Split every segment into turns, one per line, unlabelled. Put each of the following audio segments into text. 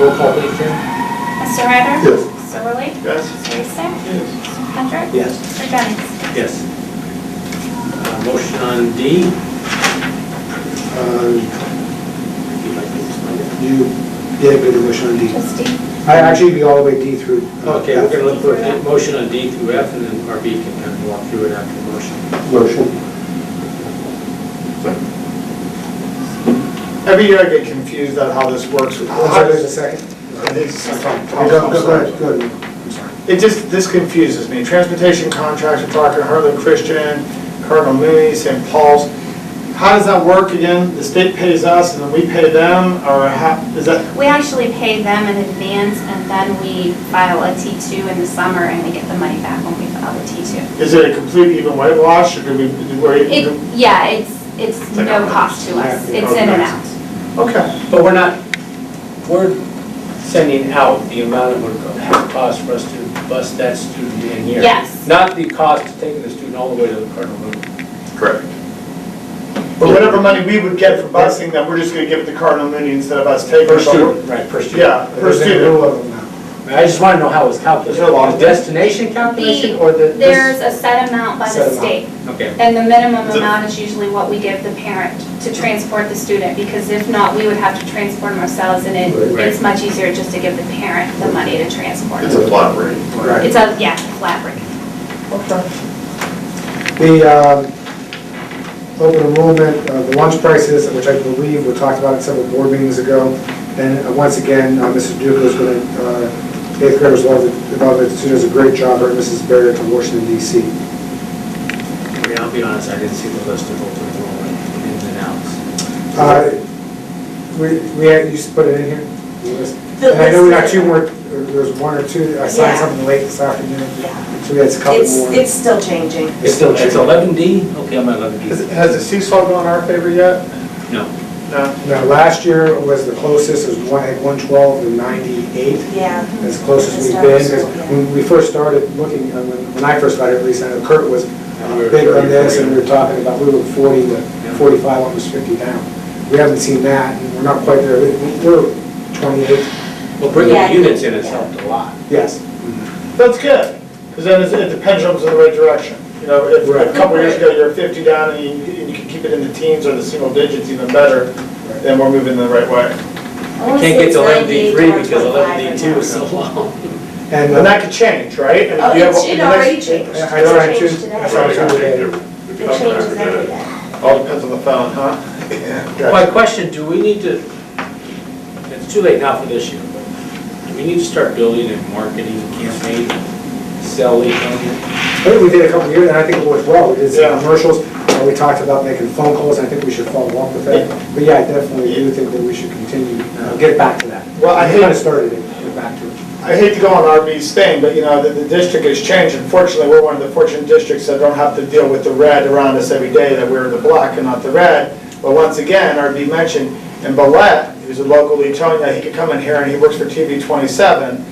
Roll call, please, Jim.
Mr. Ryder?
Yes.
Mr. Worley?
Yes.
Mr. Eastick?
Yes.
Mr. Hendrick?
Yes.
Mr. Jennings?
Yes. Uh, Motion on D.
uh,
Um, if you'd like to explain it.
You, yeah, good motion on D.
Trustee?
I actually be all the way D uh, through. uh,
Okay, we're gonna look for
Yeah.
a motion on D through F, and then RB can kind of walk through it after the motion.
Motion.
Every year I get confused on how this works. with-
I'm sorry, there's a second.
It is-
Go, go, go ahead, go ahead.
It just, this confuses me. Transportation contracts, we're talking Harlan Christian, Cardinal Mooney, St. Paul's. How does that work again? The state pays us and then we pay them, or how, is that,
We actually pay them in advance and then we file a T2 in the summer and we get the money back when we file the T2.
is it a complete even whitewash, or do we, do we?
It, yeah, it's, it's
like
no
our-
cost to us.
yeah,
It's in and
okay.
out.
Okay,
But we're not, we're sending out the amount it would cost for us to bus that student in here.
Yes.
Not the cost of taking the student all the way to the Cardinal Mooney.
Correct.
but whatever money we would get for busing them, we're just gonna give it to Cardinal Mooney instead of us taking. it.
Right, per student.
Yeah, per
There's a
student.
rule of them now.
I just wanna know how it's calculated.
There's no law.
The destination calculation
The-
or the? this-
There's a set amount by the
Set amount.
state.
Okay,
And the minimum
So-
amount is usually what we give the parent to transport the student, because if not, we would have to transport them ourselves, and it,
Right.
it's much easier just to give the parent the money to transport.
It's a flat rate.
Right.
It's a, yeah, flat rate.
The um, open enrollment, uh, the lunch prices, which I believe we talked about at several board meetings ago. And uh, once again, uh, Mrs. Duke is uh, going to, eighth graders love it, love it. She does a great job, her and Mrs. Barrett from Washington DC.
I mean, I'll be honest, I didn't see the list of open enrollment ins and outs.
Uh, We, we, had- you just put it in here?
The
And I know we got
list-
two more, there was one or two, I signed
Yeah.
something late this afternoon,
Yeah.
so we had a couple
It's,
more.
it's still changing.
It's still, it's eleven D? Okay, I'm at eleven D.
Has- has the seesaw gone in our favor yet?
No.
No.
Now, last year was the closest, it was one, at one twelve and ninety-eight,
Yeah.
as close as we've
It's
been.
not so,
'cause
yeah.
When we first started looking, uh, when, when I first started, at least, I know Kurt was uh,
We were
big on
30,
this, and we
40.
were talking about, we were forty to forty-five, almost fifty now. We haven't seen that, and we're not quite there, We- we're twenty-eight,
Well, bringing
Yeah.
the units in has helped a lot.
yes.
That's good, because then it's- it the pendulum's in the right direction. You know, if
Right.
a couple years ago, you're 50 down and you and you can keep it in the teens or the single digits even better, then we're moving in the right way.
wanna
I can't
say
get
it's
to eleven D three
98 or
because
25
eleven D two is
right
so long.
And uh,
And that could change, right? I mean,
now. Oh,
you have-
it's- it
the next-
already changed.
I- I tried to-
It changed
I
today.
tried-
Right,
It
it
changes every day.
All depends on the phone, huh? Yeah.
My
Gotcha.
question, do we need to, it's too late now for this year, but do we need to start building a marketing campaign, sell lead on it?
I think we did a couple of years, and I think it worked well. We did some
Yeah.
commercials, and we talked about making phone calls, and I think we should follow up with that. But yeah, I definitely do think that we should continue, uh, get back to that.
Well, I
We
hate-
Kind of started it, get back to it.
I hate to go on RB's thing, but you know, the, the district has changed. Unfortunately, we're one of the fortunate districts that don't have to deal with the red around us every day, that we're the black and not the red. But once again, RB mentioned, and Ballet, who's a local Etonia, he could come in here and he works for TV 27.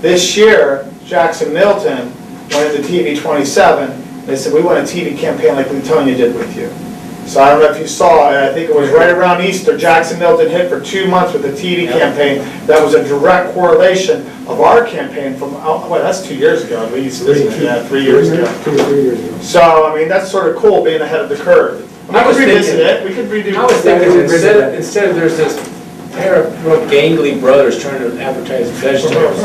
This year, Jackson Milton went into TV 27. They said, we want a TV campaign like Letonia did with you. So I don't know if you saw, I think it was right around Easter, Jackson Milton hit for two months with the TV
Yeah.
campaign. That was a direct correlation of our campaign from, oh, well, that's two years ago at least, isn't it? Yeah, three years ago.
Two or three years ago.
So, I mean, that's sort of cool being ahead of the curve. We
I was
could revisit
thinking-
it, we could redo.
I was thinking,
Yeah.
instead of, instead of there's this pair of real gangly brothers trying to advertise vegetables,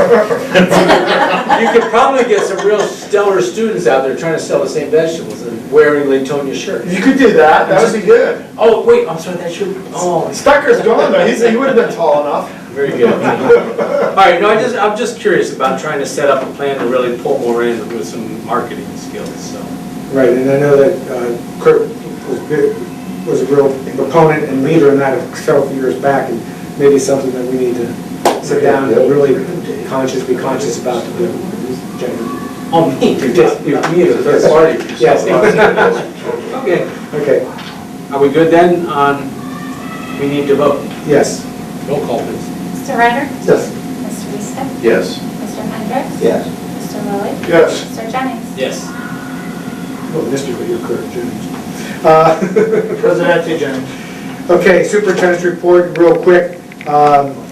you could probably get some real stellar students out there trying to sell the same vegetables and wearing Latonia shirts.
You could do that, that would be good.
Oh, wait, I'm sorry, that's your, oh,
Stucker's gone though, he's, he would have been tall enough.
Very good. All right, no, I just, I'm just curious about trying to set up a plan to really pull more in with some marketing skills, so.
Right, and I know that uh, Kurt was big- was a real proponent and leader in that several years back, and maybe something that we need to sit down and really conscious, be conscious about. you know, Jenny.
Oh, me, you just, you, me as a third party.
Yes.
Okay,
Okay,
are we good then on, we need to vote?
yes.
Roll call, please.
Mr. Ryder?
Yes.
Mr. Eastick?
Yes.
Mr. Hendrick?
Yes.
Mr. Worley?
Yes.
Mr. Jennings?
Yes.
Oh, Mr. but you're Kurt Jennings. Uh,
Presidente Jones.
Okay, superintendent's report, real quick. Um,